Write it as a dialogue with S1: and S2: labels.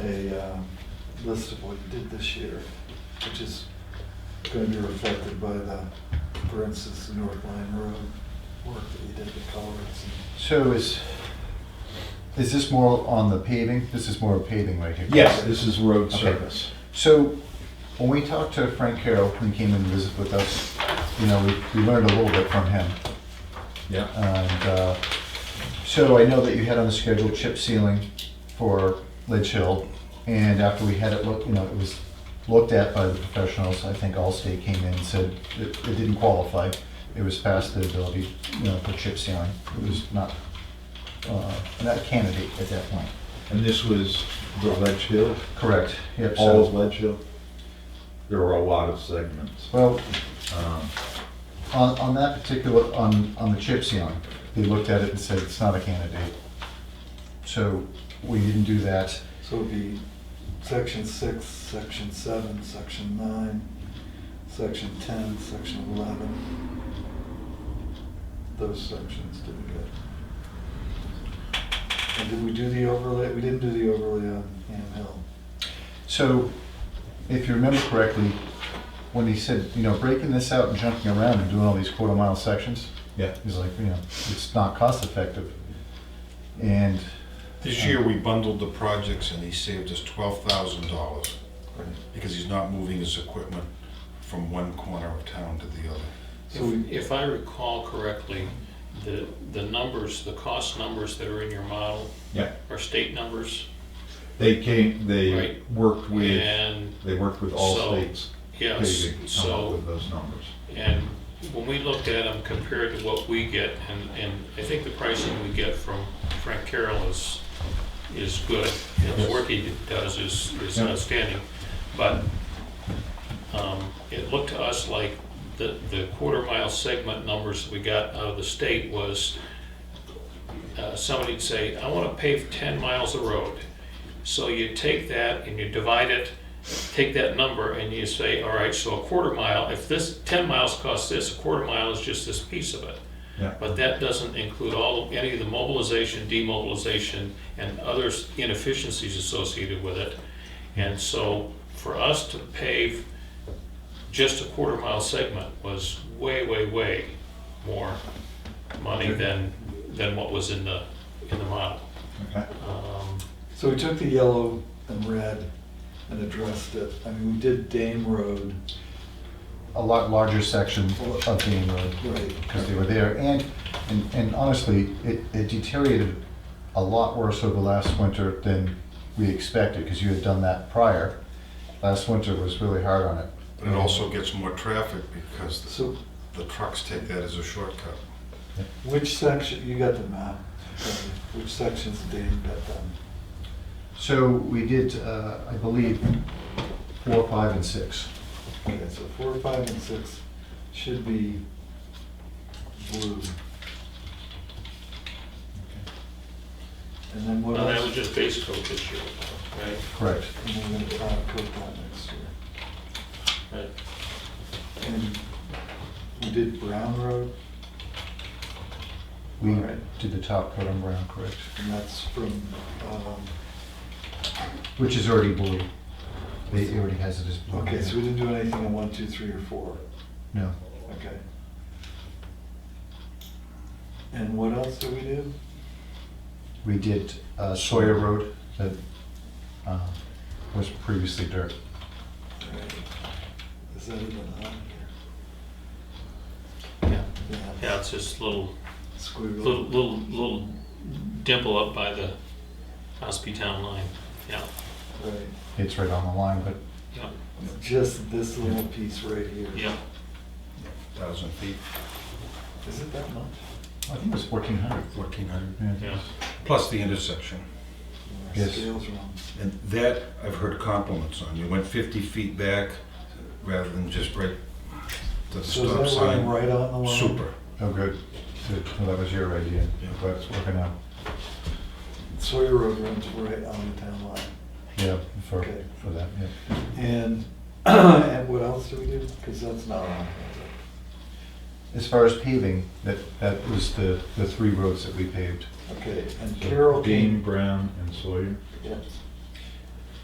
S1: um, list of what we did this year, which is gonna be reflected by the, for instance, the North Line Road work that you did, the colors
S2: So is, is this more on the paving? This is more paving right here?
S3: Yes, this is road
S2: Okay.
S3: service.
S2: So when we talked to Frank Carroll, when he came and visited with us, you know, we- we learned a little bit from him.
S3: Yeah.
S2: And uh, so I know that you had on the schedule chip sealing for Ledge Hill. And after we had it looked, you know, it was looked at by the professionals, I think Allstate came in and said it it didn't qualify. It was past the ability, you know, for chip sealing. It was not, uh, not a candidate at that point.
S3: And this was the Ledge Hill,
S2: Correct. Yep. so-
S3: all of Ledge Hill. There were a lot of segments.
S2: Well,
S3: Um,
S2: on, on that particular, on, on the chip ceiling, they looked at it and said it's not a candidate. So we didn't do that.
S1: and, so it'd be section six, section seven, section nine, section ten, section eleven. Those sections didn't get. And did we do the overlay, we didn't do the overlay on Ham Hill.
S2: So, if you remember correctly, when he said, you know, breaking this out and jumping around and doing all these quarter mile sections,
S3: Yeah.
S2: he's like, you know, it's not cost effective. And,
S4: This year, we bundled the projects and he saved us twelve thousand dollars because he's not moving his equipment from one corner of town to the other.
S1: So we-
S5: If if I recall correctly, the, the numbers, the cost numbers that are in your model
S3: Yeah,
S5: are state numbers.
S3: they came, they
S5: Right.
S3: worked with,
S5: And,
S3: they worked with all
S5: So,
S3: states.
S5: yes,
S3: paving to come up
S5: so,
S3: with those numbers.
S5: and when we looked at them compared to what we get, and, and I think the pricing we get from Frank Carroll is, is good. And
S3: Yes.
S5: the work he does is, is
S3: Yeah.
S5: outstanding. But, um, it looked to us like the, the quarter mile segment numbers we got out of the state was, uh, somebody'd say, I wanna pave ten miles of road. So you take that and you divide it, take that number and you say, all right, so a quarter mile, if this, ten miles costs this, a quarter mile is just this piece of it.
S3: Yeah.
S5: But that doesn't include all, of- any of the mobilization, demobilization, and other inefficiencies associated with it. And so for us to pave just a quarter mile segment was way, way, way more money than, than what was in the, in the model.
S3: Okay.
S5: Um,
S1: So we took the yellow and red and addressed it. I mean, we did Dame Road,
S2: a lot larger section of Dean Road.
S1: Right.
S2: Because they were there, and, and- and honestly, it it deteriorated a lot worse over last winter than we expected, because you had done that prior. Last winter was really hard on it.
S4: But it also gets more traffic because the-
S1: So
S4: the trucks take that as a shortcut.
S1: which section, you got the map, okay. which sections did Dame got done?
S2: So we did, uh, I believe, four, five, and six.
S1: Okay, so four, five, and six should be blue. And then what
S5: Now, that was
S1: else?
S5: just base coat this year, right?
S2: Correct.
S1: And then we're gonna try to coat that next year.
S5: Right.
S1: And we did Brown Road,
S2: We
S1: Alright.
S2: did the top coat on brown, correct,
S1: and that's from, um,
S2: which is already blue. They- It already has it as blue.
S1: Okay, so we didn't do anything on one, two, three, or four,
S2: No.
S1: okay. And what else did we do?
S2: We did uh, Sawyer Road that uh, was previously dirt.
S1: Alright. Is that even on here?
S5: Yeah.
S1: Yeah,
S5: Yeah, it's this little, little,
S1: squiggle.
S5: little, little dimple up by the Ospey Town line, yeah,
S1: Right,
S2: It's right on the line, but
S5: yeah,
S1: just this little piece right here.
S5: yeah.
S4: Thousand feet,
S1: Is it that much?
S2: I think it was 1,400.
S4: fourteen hundred,
S2: Yeah.
S5: Yeah.
S4: plus the intersection.
S1: Our
S2: Yes.
S1: Scale's wrong.
S4: And that, I've heard compliments on. You went fifty feet back rather than just right to the
S1: So
S4: stop
S1: is that running
S4: sign.
S1: right on the line?
S4: Super.
S2: Oh, good. Good. Well, That was your idea,
S4: Yeah.
S2: but it's working out.
S1: Sawyer Road runs right on the town line.
S2: Yeah, for,
S1: Okay.
S2: for that, yeah.
S1: And, and what else do we do? Because that's not on.
S2: As far as paving, that, that was the, the three roads that we paved.
S1: Okay, and Carol came.
S3: Dean, Brown, and Sawyer.
S1: Yes.